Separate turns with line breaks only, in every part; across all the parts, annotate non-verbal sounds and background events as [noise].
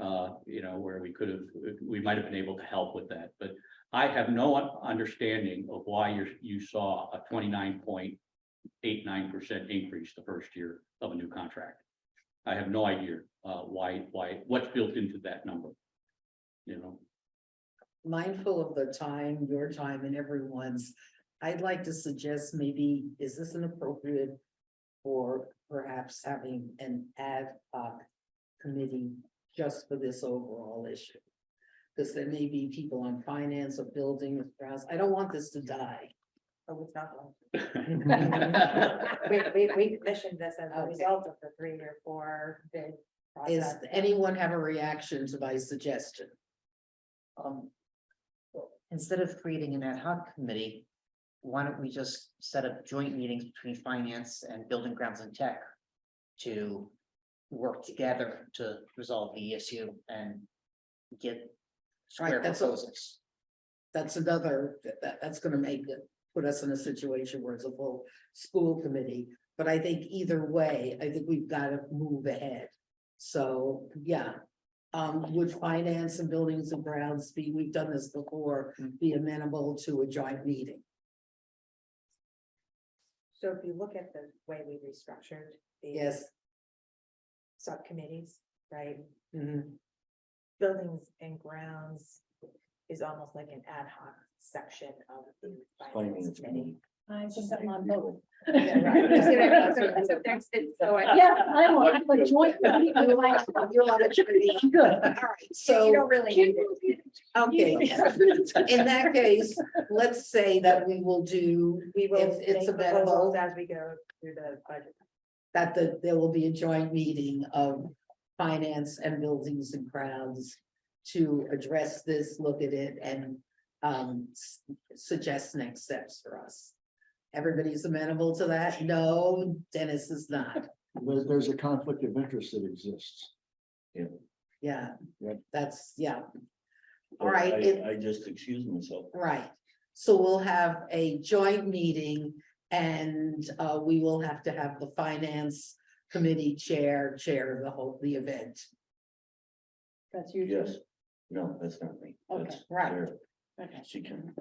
uh, you know, where we could have, we might have been able to help with that, but I have no un- understanding of why you're, you saw a twenty-nine point eight, nine percent increase the first year of a new contract. I have no idea, uh, why, why, what's built into that number. You
[laughs]
know,
mindful of the time, your time and everyone's, I'd like to suggest maybe, is this an appropriate for perhaps having an ad hoc committee just for this overall issue? Because there may be people on finance or building, I don't want this to die.
Oh, it's not going.
I
We, we, we commissioned this as a
Okay.
result of the three or four bid
Is
process.
anyone have a reaction to my suggestion?
Um. Instead of creating an ad hoc committee, why don't we just set up joint meetings between finance and building grounds and tech? To work together to resolve the issue and get square
Right, that's all.
proposals.
That's another, that- that, that's gonna make it, put us in a situation where it's a full school committee. But I think either way, I think we've gotta move ahead. So, yeah. Um, would finance and buildings and grounds be, we've done this before, be amenable to a joint meeting?
So if you look at the way we restructured the
Yes.
subcommittees, right?
Mhm.
Buildings and grounds is almost like an ad hoc section of the finance committee.
I just am on both.
[laughs] Yeah, right. You see [laughs] what I mean? So- so there's- so Oh, I-
Yeah, I'm, on- I'm a joint. committee.
[laughs]
I'm like,
You're on the committee.
I'm Good.
All right,
You
so,
don't really need it.
okay, in that case, let's say that we will do,
We will.
If it's
make
amenable.
proposals As we go through the budget.
that the, there will be a joint meeting of finance and buildings and grounds to address this, look at it and um s- suggest next steps for us. Everybody's amenable to that? No, Dennis is not.
There's, there's a conflict of interest that exists.
Yeah,
Yep.
that's, yeah, All
But
right,
I-
it-
I just excuse myself.
right. So we'll have a joint meeting and uh we will have to have the finance committee chair, chair the whole, the event.
That's you.
Yes. No, that's not me.
Okay,
That's
right.
Sarah.
Okay.
She can.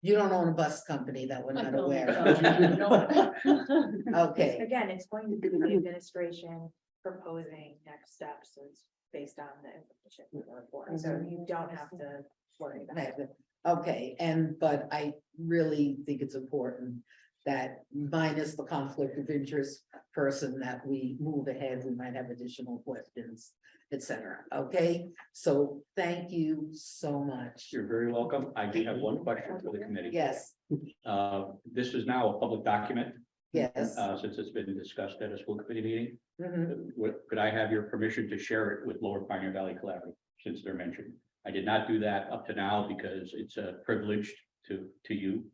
You don't own a bus company that we're
I
not
don't. [laughs]
aware of. Okay,
Again, it's going to be the administration proposing next steps, so it's based on the information we report, so you don't have to worry about it.
okay, and, but I really think it's important that minus the conflict of interest person that we move ahead, we might have additional questions, et cetera, okay? So thank you so much.
You're very welcome. I do have one question for the committee.
Yes,
Uh, this is now a public document,
yes.
uh, since it's been discussed at a school committee meeting.
Mhm.
Would- could I have your permission to share it with Lower Pioneer Valley Collaborative, since they're mentioned? I did not do that up to now because it's a privilege to, to you.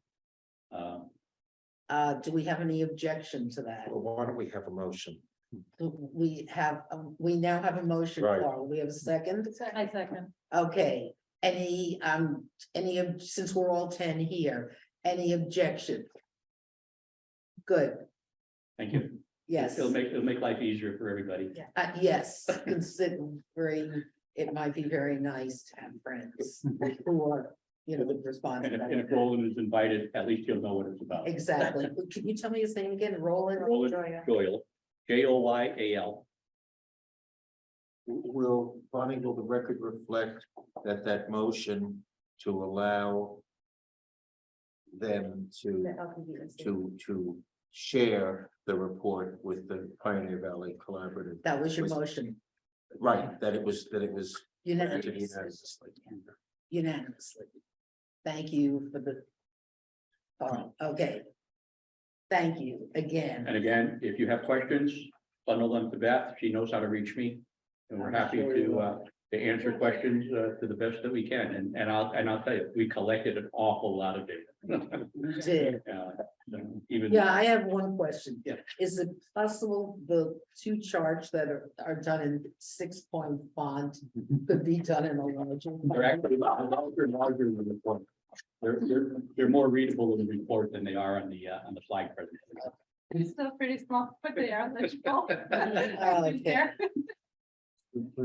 Um,
Uh, do we have any objection to that?
Well, why don't we have a motion?
We have, um, we now have a motion,
Right.
Carl. We have a second?
I second.
Okay, any, um, any, ob- since we're all ten here, any objection? Good,
thank you.
yes,
It'll make, it'll make life easier for everybody.
uh, yes, considering it might be very nice to have friends who are, you know, would respond.
And
to
if, and
that.
if Roland is invited, at least he'll know what it's about.
Exactly. Can you tell me his name again? Roland?
Roland
Joya.
Joyal, J O Y A L.
Will, Bonnie, will the record reflect that that motion to allow them
The
to,
LPVC.
to, to share the report with the Pioneer Valley Collaborative?
That was your
Was-
motion
Right, that it was, that it was. granted
unanimously,
unanimously.
unanimously. Thank you for the. Oh, okay. Thank you again.
And again, if you have questions, bundle them to Beth. She knows how to reach me. And we're happy to, uh, to answer questions, uh, to the best that we can. And, and I'll, and I'll tell you, we collected an awful lot of data.
You did.
Uh, Even.
Yeah, I have one question.
Yeah.
Is it possible the two charts that are, are done in six point font could be done in a larger?
They're
font?
actually larger and larger than the report. They're, they're, they're more readable in the report than they are on the, uh, on the slide presentation. [laughs]
Oh,
Still pretty small, but they are legible.
Okay.